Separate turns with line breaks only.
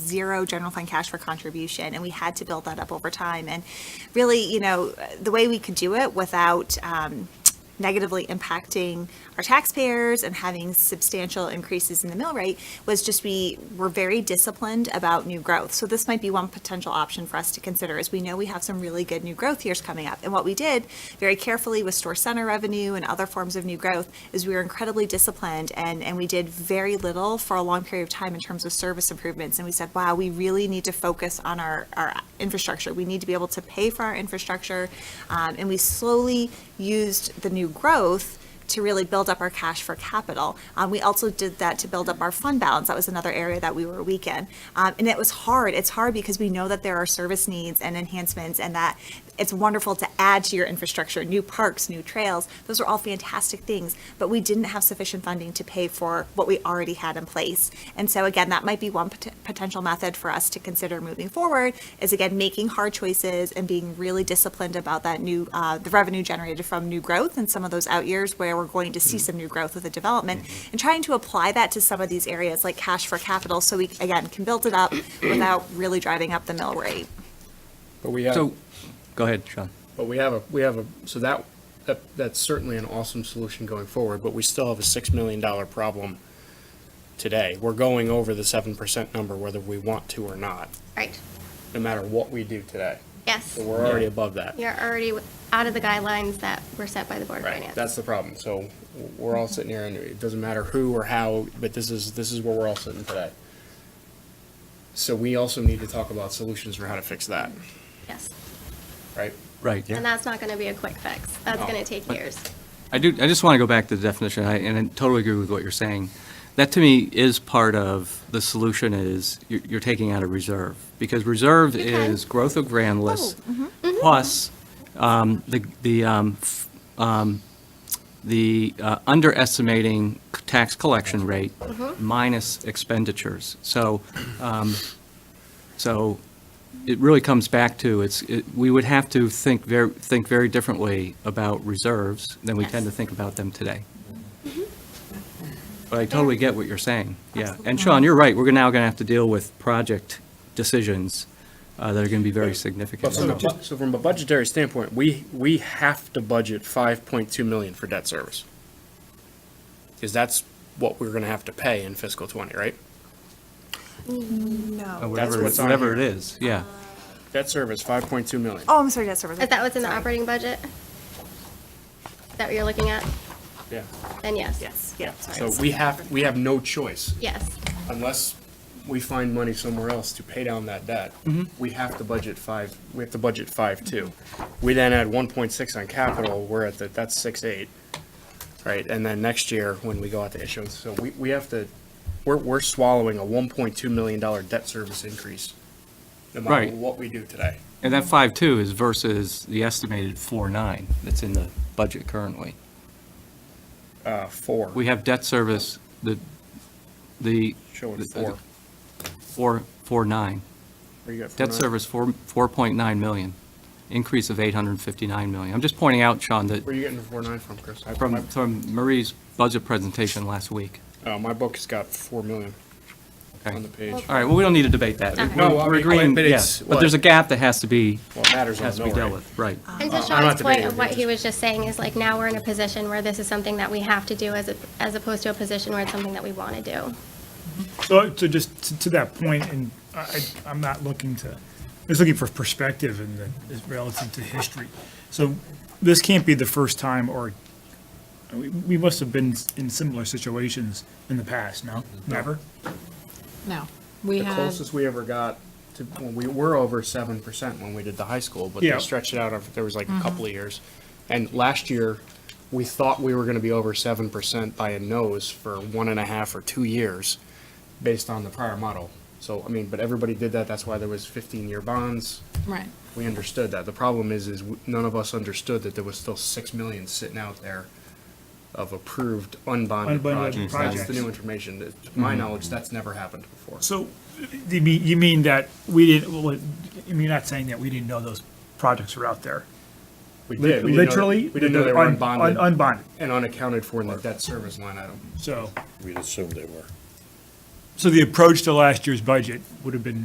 zero general fund cash for contribution, and we had to build that up over time. And really, you know, the way we could do it without um, negatively impacting our taxpayers and having substantial increases in the mill rate was just we were very disciplined about new growth. So this might be one potential option for us to consider is we know we have some really good new growth years coming up. And what we did very carefully with store center revenue and other forms of new growth is we were incredibly disciplined and, and we did very little for a long period of time in terms of service improvements. And we said, wow, we really need to focus on our, our infrastructure. We need to be able to pay for our infrastructure. Um, and we slowly used the new growth to really build up our cash for capital. Um, we also did that to build up our fund balance. That was another area that we were weak in. Um, and it was hard. It's hard because we know that there are service needs and enhancements and that it's wonderful to add to your infrastructure, new parks, new trails. Those are all fantastic things, but we didn't have sufficient funding to pay for what we already had in place. And so again, that might be one pot- potential method for us to consider moving forward is again, making hard choices and being really disciplined about that new, uh, the revenue generated from new growth and some of those out years where we're going to see some new growth with the development and trying to apply that to some of these areas like cash for capital. So we, again, can build it up without really driving up the mill rate.
But we have,
So, go ahead, Sean.
but we have a, we have a, so that, that, that's certainly an awesome solution going forward, but we still have a six million dollar problem today. We're going over the seven percent number whether we want to or not,
Right,
no matter what we do today.
yes.
So we're already above that.
You're already out of the guidelines that were set by the Board of
Right,
Finance.
that's the problem. So we're all sitting here and it doesn't matter who or how, but this is, this is where we're all sitting today. So we also need to talk about solutions for how to fix that,
Yes,
right?
Right.
and that's not gonna be a quick fix. That's
No.
gonna take
But-
years.
I do, I just want to go back to the definition, I- and I totally agree with what you're saying. That to me is part of the solution is you're you're taking out a reserve, because reserve
Okay. Oh, mm-hmm.
is growth of grand list plus um, the, the, um, f- um, the uh, underestimating c- tax collection rate minus expenditures. So, um, so it really comes back to, it's, it- we would have to think very, think very differently about reserves than we tend to
Yes.
think about them today. But I totally get what you're saying, yeah. And Sean, you're right, we're now going to have to deal with project decisions uh, that are going to be very significant.
But from a, bu- so from a budgetary standpoint, we, we have to budget five point two million for debt service. Because that's what we're gonna have to pay in fiscal twenty, right?
Uh,
No.
Whatever,
what's on
whatever
here.
it is, yeah.
Debt service, five point two million.
Oh, I'm sorry, debt service.
Is that what's in the
Sorry.
operating budget? Is that what you're looking at?
Yeah.
Then yes.
Yes, yeah.
So we have, we have no choice,
Yes,
unless we find money somewhere else to pay down that debt.
Mm-hmm.
We have to budget five, we have to budget five two. We then add one point six on capital, we're at the, that's six eight. Right, and then next year, when we go out to issuance, so we, we have to, we're, we're swallowing a one point two million dollar debt service increase. No matter
Right.
what we do today.
And that five-two is versus the estimated four-nine that's in the budget currently.
Uh, four,
We have debt service, the, the.
showing
the-
four.
Four, four-nine.
Where you got four
Debt
nine?
service, four, four-point-nine million, increase of eight hundred and fifty-nine million. I'm just pointing out, Sean,
Where
that
are you getting the four nine from, Chris? I-
from,
my-
from Marie's budget presentation last week.
Oh, my book's got four million
Okay.
on the page.
All right, well, we don't need to debate that.
Okay.
We're-
No, I
We're
mean,
agreeing,
but
yeah,
it's-
but there's a gap that has to be,
Well, it matters on
has
the
to be
mill
dealt
rate.
with, right.
and
Uh,
to
I'm not
Sean's point
debating
of
it,
what he
just-
was just saying is like now we're in a position where this is something that we have to do as, a- as opposed to a position where it's something that we wanna do.
So, so just to- to that point, and I, I- I'm not looking to, I'm just looking for perspective and the- is relative to history. So this can't be the first time, or we, we must have been in similar situations in the past, no? Never?
No, we
The
had,
closest we ever got to, when we were over seven percent when we did the high school, but
Yeah.
they stretched it out, over- there was like a couple of years. And last year, we thought we were gonna be over seven percent by a nose for one and a half or two years, based on the prior model. So, I mean, but everybody did that, that's why there was fifteen-year bonds,
right,
we understood that. The problem is, is none of us understood that there was still six million sitting out there of approved unbonded
Unbonded
projects. That's the
projects. Mm-hmm.
new information, to my knowledge, that's never happened before.
So you mean, you mean that we didn't, well, you're not saying that we didn't know those projects were out there?
We
Lit-
did. We didn't know-
Literally?
We didn't know they were
un- un-
unbonded
Unbonded,
and unaccounted for in the debt service line item.
so,
We'd assume they were.
so the approach to last year's budget would have been